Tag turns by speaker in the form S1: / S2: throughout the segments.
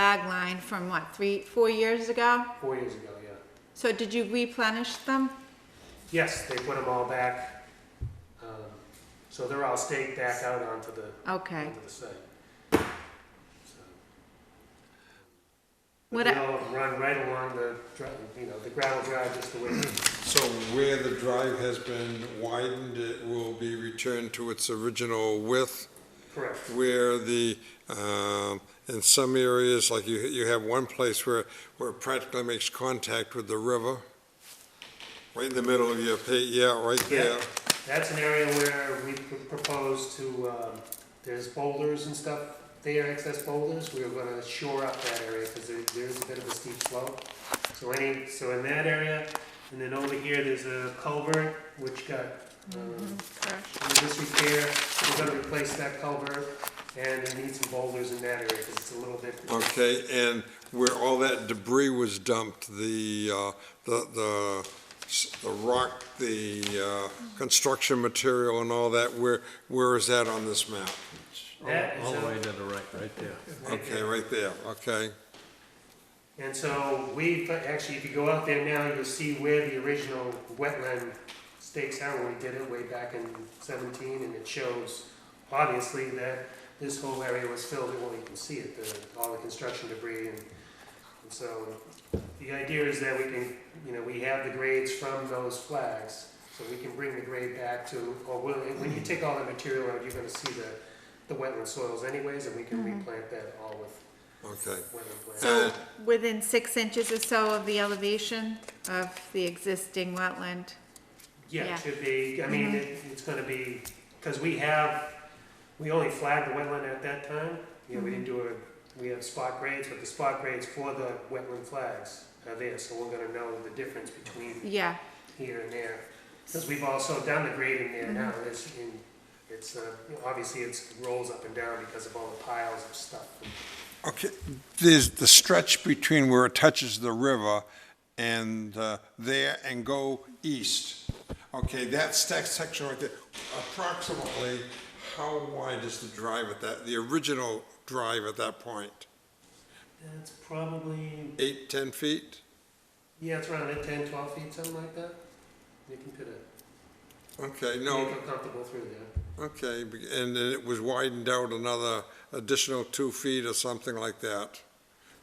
S1: bag line from what, three, four years ago?
S2: four years ago, yeah.
S1: So did you replenish them?
S2: Yes, they put them all back. Um, So they're all staked back out onto the,
S1: Okay.
S2: onto the site. So-
S1: What
S2: But they
S1: I-
S2: all run right along the, dri- you know, the gravel drive just the way,
S3: So where the drive has been widened, it will be returned to its original width,
S2: correct.
S3: where the, um, in some areas, like you, you have one place where, where it practically makes contact with the river, right in the middle of your, pa- yeah, right there.
S2: Yeah. That's an area where we pr- propose to, um, there's boulders and stuff there, excess boulders, we are gonna shore up that area, because there, there's a bit of a steep slope. So any, so in that area, and then over here, there's a culvert, which got, um, in disrepair, we're gonna replace that culvert, and it needs some boulders in that area, because it's a little bit,
S3: Okay, and where all that debris was dumped, the, uh, the, the, s- the rock, the, uh, construction material and all that, where, where is that on this map?
S2: that is
S4: All the
S2: a-
S4: way to the right, right there.
S2: right
S3: Okay,
S2: there.
S3: right there, okay.
S2: And so we, actually, if you go out there now, you'll see where the original wetland stakes are when we did it way back in seventeen, and it shows, obviously, that this whole area was filled, well, you can see it, the, all the construction debris, and, and so the idea is that we can, you know, we have the grades from those flags, so we can bring the grade back to, or when, when you take all the material out, you're gonna see the, the wetland soils anyways, and we can replant that all with
S3: Okay.
S2: wetland plants.
S1: So within six inches or so of the elevation of the existing wetland?
S2: Yeah,
S1: Yeah.
S2: it should be, I mean, it, it's gonna be, because we have, we only flagged the wetland at that time. You know, we didn't do a, we have spot grades, but the spot grades for the wetland flags are there, so we're gonna know the difference between
S1: Yeah,
S2: here and there. Because we've also done the grading there now, it's, in, it's, uh, obviously it's rolls up and down because of all the piles of stuff.
S3: Okay, there's the stretch between where it touches the river and uh, there and go east. Okay, that stack section right there, approximately, how wide is the drive at that, the original drive at that point?
S2: That's probably,
S3: Eight, 10 feet?
S2: yeah, it's around at ten, twelve feet, something like that. You can put a,
S3: Okay,
S2: you
S3: no,
S2: feel comfortable through there.
S3: okay, and then it was widened out another additional two feet or something like that?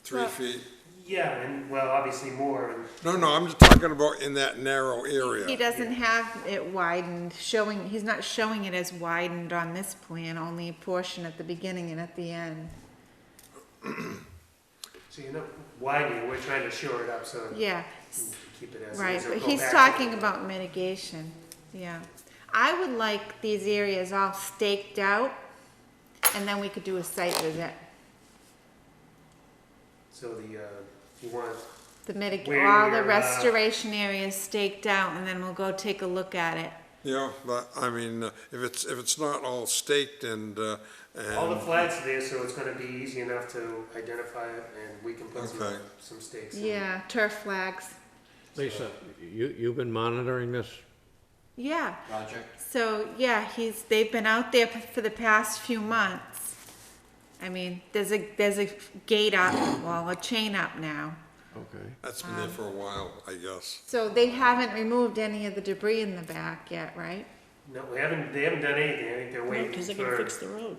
S3: Three
S1: Well-
S3: feet?
S2: Yeah, and, well, obviously more, and
S3: No, no, I'm just talking about in that narrow
S1: he
S3: area.
S1: doesn't have it widened, showing, he's not showing it as widened on this plan, only a portion at the beginning and at the end.
S2: So you're not widening, we're trying to shore it up so
S1: Yeah,
S2: you can keep it as.
S1: Right,
S2: is, or
S1: but
S2: go
S1: he's
S2: back to-
S1: talking about mitigation, yeah. I would like these areas all staked out, and then we could do a site visit.
S2: So the, uh, you want,
S1: The mitig,
S2: Where
S1: all the
S2: you're, uh,
S1: restoration areas staked out, and then we'll go take a look at it.
S3: Yeah, but, I mean, uh, if it's, if it's not all staked and, uh,
S1: Um,
S2: all the
S3: and,
S2: flags are there, so it's gonna be easy enough to identify it and we can put some,
S3: Okay.
S2: some stakes. in.
S1: Yeah, turf flags,
S4: Lisa, you, you've been monitoring this?
S1: yeah.
S5: project.
S1: So, yeah, he's, they've been out there p- for the past few months. I mean, there's a, there's a gate up, well, a chain up now.
S4: Okay.
S3: that's been there for a while, I guess.
S1: So they haven't removed any of the debris in the back yet, right?
S2: No, we haven't, they haven't done anything, I think they're waiting
S6: Because
S2: for,
S6: they're
S2: they
S6: gonna fix the road.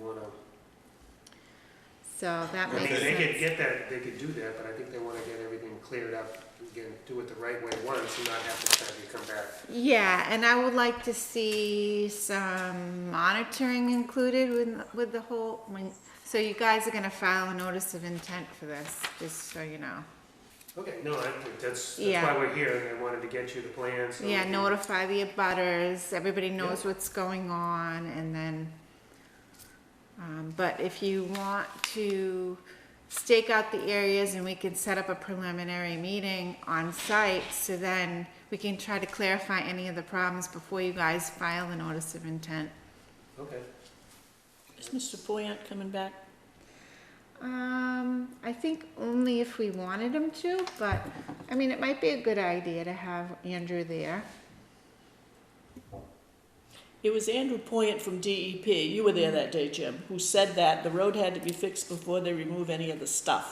S2: wanna,
S1: So that
S2: I
S1: Mm-hmm.
S2: mean,
S1: makes sense.
S2: they could get that, they could do that, but I think they wanna get everything cleared up, again, do it the right way once and not have to have you come back.
S1: Yeah, and I would like to see some monitoring included with, with the whole, when, so you guys are gonna file a notice of intent for this, just so you know.
S2: Okay, no, I, that's, that's
S1: Yeah.
S2: why we're here, and I wanted to get you the plans. so
S1: Yeah,
S2: we can-
S1: notify the abutters, everybody knows what's going on, and then, um, but if you want to stake out the areas and we can set up a preliminary meeting on site, so then we can try to clarify any of the problems before you guys file the notice of intent.
S2: Okay.
S6: Is Mr. Foyant coming back?
S1: Um, I think only if we wanted him to, but, I mean, it might be a good idea to have Andrew there.
S6: It was Andrew Poyant from E DEP, you were there that day, Jim, who said that the road had to be fixed before they remove any of the stuff.